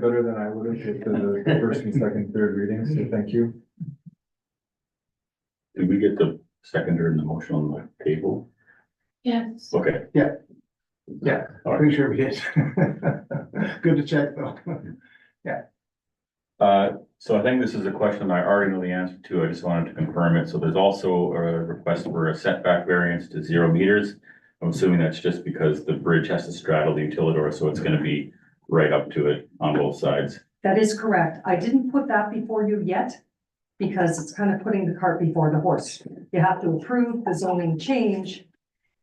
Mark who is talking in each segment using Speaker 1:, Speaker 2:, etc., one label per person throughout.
Speaker 1: better than I would have at the first and second, third readings, so thank you.
Speaker 2: Did we get the seconder in the motion on the table?
Speaker 3: Yes.
Speaker 2: Okay,
Speaker 4: Yeah,
Speaker 2: All right.
Speaker 4: pretty sure we did. Good to check though.
Speaker 2: uh, so I think this is a question I already know the answer to. I just wanted to confirm it. So there's also a request for a setback variance to zero meters. I'm assuming that's just because the bridge has to straddle the utilidor, so it's gonna be right up to it on both sides.
Speaker 5: That is correct. I didn't put that before you yet because it's kind of putting the cart before the horse. You have to approve the zoning change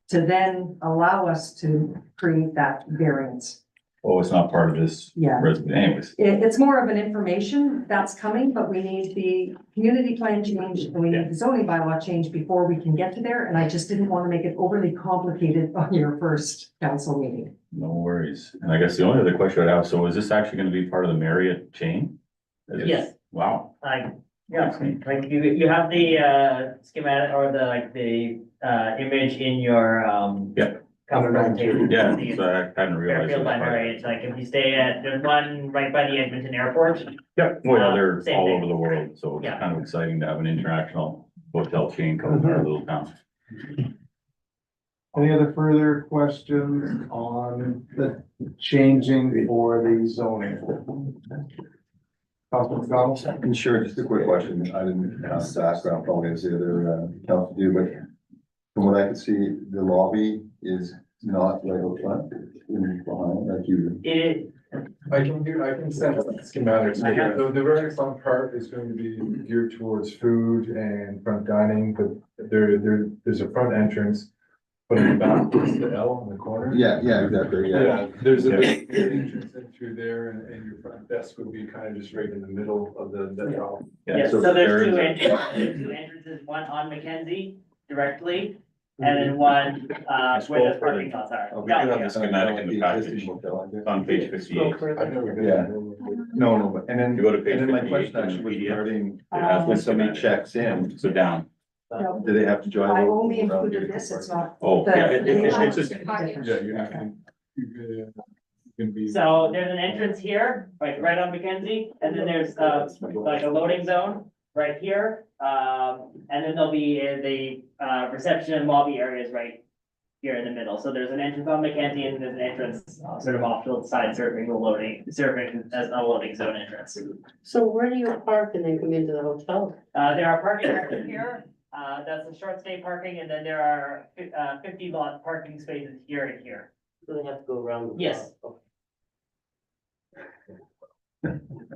Speaker 5: to then allow us to create that variance.
Speaker 2: Oh, it's not part of this
Speaker 5: Yeah.
Speaker 2: resident anyways.
Speaker 5: It- it's more of an information that's coming, but we need the community plan change and we need the zoning bylaw change before we can get to there. And I just didn't want to make it overly complicated on your first council meeting.
Speaker 2: No worries. And I guess the only other question I'd have, so is this actually gonna be part of the Marriott chain? Is it-
Speaker 6: Yes.
Speaker 2: Wow.
Speaker 6: Like, yeah, like you, you have the, uh, schematic or the, like, the, uh, image in your, um.
Speaker 2: Yeah.
Speaker 6: Cover presentation.
Speaker 2: Yeah, so I hadn't realized. it was part of it.
Speaker 6: Fairfield Library, it's like, if you stay at, there's one right by the Edmonton Airport,
Speaker 2: Yeah, well,
Speaker 6: Uh,
Speaker 2: they're
Speaker 6: same
Speaker 2: all
Speaker 6: thing.
Speaker 2: over the world, so it's
Speaker 6: Yeah.
Speaker 2: kind of exciting to have an international hotel chain come to our
Speaker 7: Mm-hmm.
Speaker 2: little town.
Speaker 4: Any other further questions on the changing for the zoning? Councilman McDonald?
Speaker 7: And Sure, just a quick question. I didn't ask that, but I'll probably ask the other uh, council do, but from what I can see, the lobby is not right up front, in behind, like you.
Speaker 6: it is,
Speaker 1: I can do, I can send out schematics.
Speaker 6: I have-
Speaker 1: The, the very fun part is going to be geared towards food and front dining, but there, there, there's a front entrance. But in the back, there's the L in the corner.
Speaker 7: Yeah, yeah, exactly, yeah.
Speaker 1: Yeah, there's a big entrance in through there and, and your front desk would be kind of just right in the middle of the, the L.
Speaker 6: yeah, so
Speaker 2: there
Speaker 6: there's
Speaker 2: is
Speaker 6: two
Speaker 2: a-
Speaker 6: entrances, there's two entrances, one on Mackenzie directly, and then
Speaker 2: Mm-hmm.
Speaker 6: one, uh,
Speaker 2: It's
Speaker 6: where
Speaker 2: both
Speaker 6: the
Speaker 2: for
Speaker 6: parking
Speaker 2: the-
Speaker 6: lots are.
Speaker 7: Oh, we
Speaker 6: Yeah,
Speaker 2: do have
Speaker 6: yeah.
Speaker 2: this- schematic in the package.
Speaker 7: existing hotel, I guess.
Speaker 2: It's on page fifty-eight.
Speaker 1: I've never been.
Speaker 7: Yeah. No, no, but, and
Speaker 2: You
Speaker 7: then,
Speaker 2: go to page
Speaker 7: and then my
Speaker 2: fifty-eight.
Speaker 7: question
Speaker 2: in the
Speaker 7: actually was
Speaker 2: PDF,
Speaker 7: regarding,
Speaker 2: it has
Speaker 5: Um,
Speaker 7: when
Speaker 2: this
Speaker 7: somebody
Speaker 2: schematic.
Speaker 7: checks in,
Speaker 2: So down,
Speaker 5: No,
Speaker 7: do they have to drive?
Speaker 5: I
Speaker 7: over
Speaker 5: only
Speaker 7: around
Speaker 5: included
Speaker 7: here?
Speaker 5: this. It's not.
Speaker 2: oh,
Speaker 5: the-
Speaker 2: yeah, it- it- it's- it's just,
Speaker 1: Yeah, you have to. You
Speaker 7: uh,
Speaker 1: can be.
Speaker 6: So there's an entrance here, like right on Mackenzie, and then there's, uh, like a loading zone right here. Um, and then there'll be uh, the, uh, reception and lobby areas right here in the middle. So there's an entrance on Mackenzie and there's an entrance uh, sort of off to the side serving the loading, serving as a loading zone entrance.
Speaker 3: So where do you park and then come into the hotel?
Speaker 6: Uh, there are parking areas here, uh, that's the short stay parking, and then there are, fif- uh, fifty lot parking spaces here and here.
Speaker 3: Do they have to go around? the block?
Speaker 6: Yes.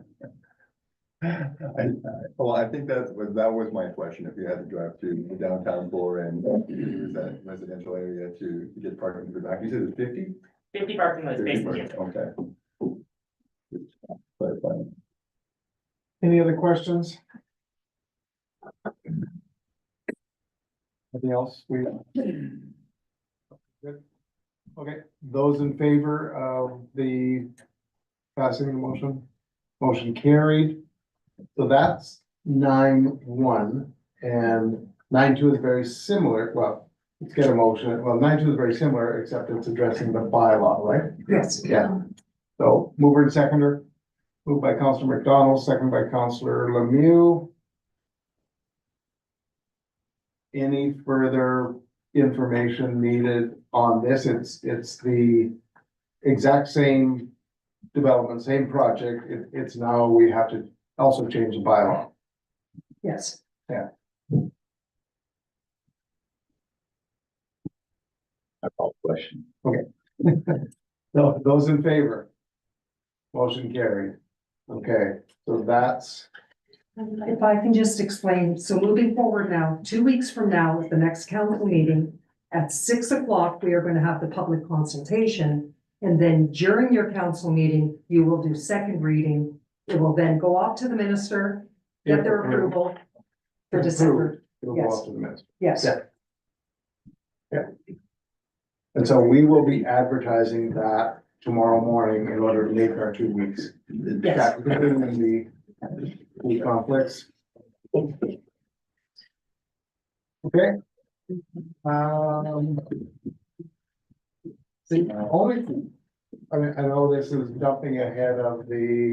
Speaker 7: I, I- well, I think that was, that was my question, if you had to drive to the downtown floor and use that residential area to to get parking in the back, you said it's fifty?
Speaker 6: Fifty parking lot spaces here.
Speaker 7: Okay. But, but,
Speaker 4: Any other questions? Anything else? We. Good. Okay, those in favor of the passing of the motion, motion carried. So that's nine one and nine two is very similar. Well, let's get a motion. Well, nine two is very similar, except it's addressing the bylaw, right?
Speaker 5: Yes.
Speaker 4: Yeah. So mover and seconder, moved by Counselor McDonald, second by Counselor Lemieux. Any further information needed on this? It's, it's the exact same development, same project. It, it's now we have to also change the bylaw.
Speaker 5: Yes.
Speaker 2: I call the question.
Speaker 4: No, those in favor? Motion carried. Okay, so that's,
Speaker 5: If I can just explain, so moving forward now, two weeks from now, at the next council meeting, at six o'clock, we are gonna have the public consultation. And then during your council meeting, you will do second reading. It will then go off to the minister, get their approval for December,
Speaker 4: it'll go off to the minutes.
Speaker 5: yes.
Speaker 4: Yeah. And so we will be advertising that tomorrow morning in order to make our two weeks.
Speaker 5: Yes.
Speaker 4: Considering the- the conflicts. Okay. Um. The only, I mean, I know this is jumping ahead of the